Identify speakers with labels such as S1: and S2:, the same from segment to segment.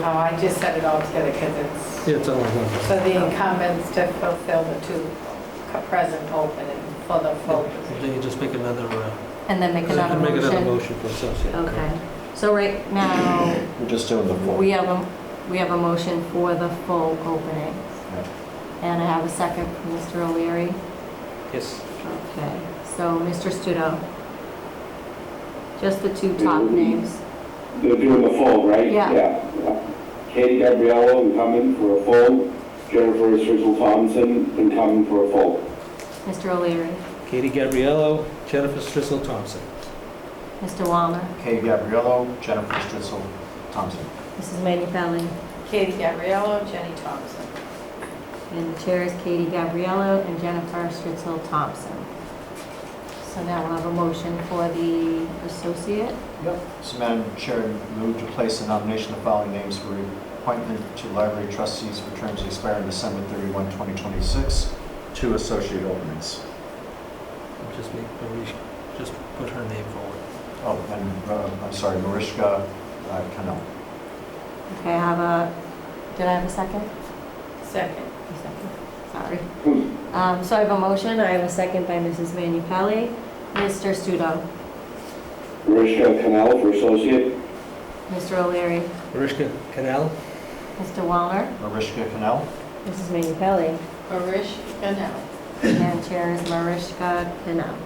S1: No, I just set it all together because it's,
S2: Yeah, it's only one.
S1: so the incumbents to fulfill the two cu- present open and for the full position.
S2: Then you just make another, uh,
S3: And then make another
S2: make another motion
S3: motion?
S2: for associate.
S3: Okay, so right now,
S4: We're just doing the
S3: we
S4: four.
S3: have a, we have a motion for the full opening. And I have a second from Mr. O'Leary.
S2: Yes.
S3: Okay, so Mr. Studo. Just the two top names.
S5: They're doing the full, right?
S3: Yeah.
S5: Katie Gabriello incumbent for a full, Jennifer Sizzle Thompson incumbent for a full.
S3: Mr. O'Leary,
S2: Katie Gabriello, Jennifer Strissel Thompson.
S3: Mr. Walner,
S4: Kay Gabriello, Jennifer Stritzel, Thompson.
S3: Mrs. Manu Pelli,
S1: Katie Gabriello, Jenny Thompson.
S3: and the chair is Katie Gabriello and Jennifer Stritzel Thompson. So now we'll have a motion for the associate.
S4: Yep. So Madam Chair, move to place a nomination of the following names for appointment to library trustees for terms to expire on December 31, 2026, two associate openings.
S2: Just make, Marisha- just put her name forward.
S4: Oh, and uh, I'm sorry, Mariska uh, Cannell.
S3: Okay, I have a, did I have a second?
S1: Second.
S3: A second, Sorry. Um, So I have a motion, I have a second by Mrs. Manu Pelli. Mr. Studo,
S5: Mariska Canal for associate.
S3: Mr. O'Leary,
S2: Mariska Canal?
S3: Mr. Walner,
S4: Mariska Cannell?
S3: Mrs. Manu Pelli,
S1: Marish Ganel.
S3: and Chair is Mariska Pinna.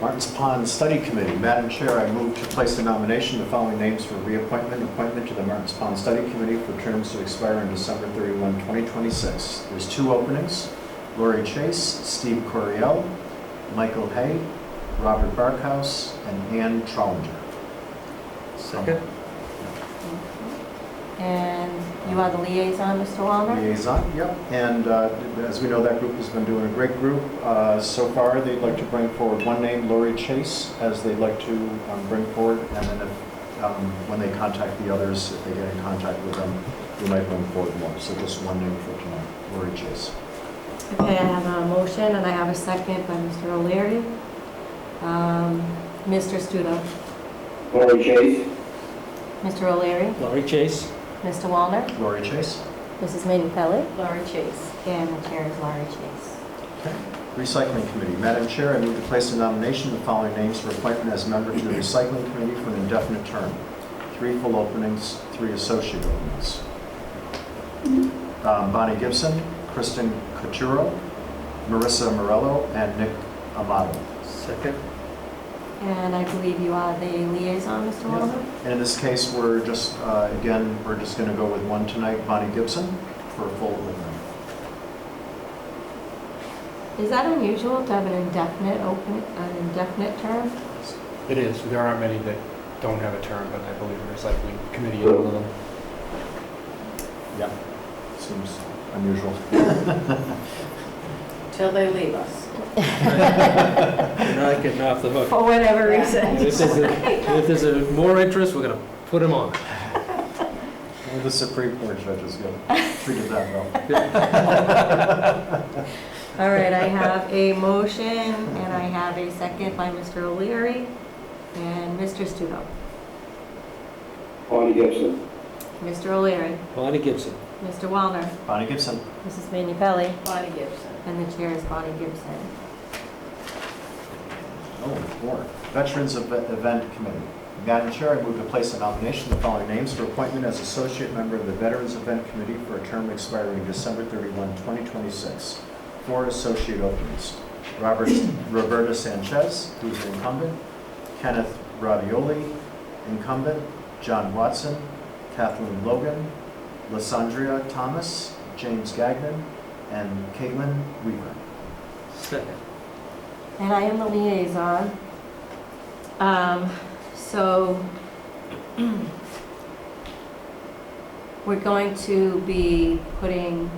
S4: Martins Pond Study Committee. Madam Chair, I move to place the nomination of the following names for reappointment, appointment to the Martins Pond Study Committee for terms to expire on December 31, 2026. There's two openings, Lori Chase, Steve Coriel, Michael Hay, Robert Barkhouse, and Ann Trolinger.
S2: Second.
S3: And you are the liaison, Mr. Walner?
S4: Liaison, yep. And uh, as we know, that group has been doing a great group. Uh, So far, they'd like to bring forward one name, Lori Chase, as they'd like to um, bring forward. And then if, um, when they contact the others, if they get in contact with them, we might bring forward more. So just one name for tonight, Lori Chase.
S3: Okay, I have a motion and I have a second by Mr. O'Leary. Um, Mr. Studo,
S5: Lori Chase.
S3: Mr. O'Leary,
S2: Laurie Chase?
S3: Mr. Walner,
S4: Lori Chase.
S3: Mrs. Manu Pelli,
S1: Laura Chase.
S3: and the Chair is Laurie Chase.
S4: Recycling Committee. Madam Chair, I move to place a nomination of the following names for appointment as member to the Recycling Committee for an indefinite term. Three full openings, three associate openings. Um, Bonnie Gibson, Kristen Coturo, Marissa Morello, and Nick Amato.
S2: Second.
S3: And I believe you are the liaison, Mr. Walner?
S4: And in this case, we're just, uh, again, we're just going to go with one tonight, Bonnie Gibson, for a full opening.
S3: Is that unusual to have an indefinite open, an indefinite term?
S6: It is. There aren't many that don't have a term, but I believe the recycling committee is one of them.
S4: Yeah, seems unusual.
S1: Till they leave us.
S2: You're not getting off the hook.
S3: For whatever
S1: Yeah.
S3: reason.
S2: If there's, a- if there's a more interest, we're gonna put him on.
S4: Well, The Supreme Court judges get treated that well.
S3: All right, I have a motion and I have a second by Mr. O'Leary and Mr. Studo.
S5: Bonnie Gibson.
S3: Mr. O'Leary,
S2: Bonnie Gibson.
S3: Mr. Walner,
S4: Bonnie Gibson.
S3: Mrs. Manu Pelli,
S1: Bonnie Gibson.
S3: and the chair is Bonnie Gibson.
S4: Oh, four. Veterans Ev- Event Committee. Madam Chair, I move to place a nomination of the following names for appointment as associate member of the Veterans Event Committee for a term expiring December 31, 2026. Four associate openings. Robert, Roberta Sanchez, who's an incumbent, Kenneth Ravioli, incumbent, John Watson, Kathleen Logan, Lysandria Thomas, James Gagnon, and Caitlin Weaver.
S2: Second.
S3: And I am the liaison. Um, So we're going to be putting,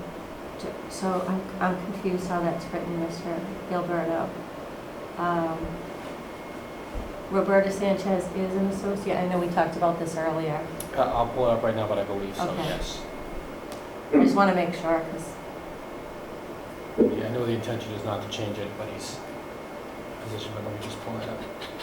S3: so I'm I'm confused how that's written, Mr. Gilberto. Um, Roberta Sanchez is an associate, I know we talked about this earlier.
S6: I- Uh, I'll pull it up right now, but I believe so,
S3: Okay.
S6: yes.
S3: I just want to make sure, because
S6: Yeah, I know the intention is not to change anybody's position, but let me just pull it up.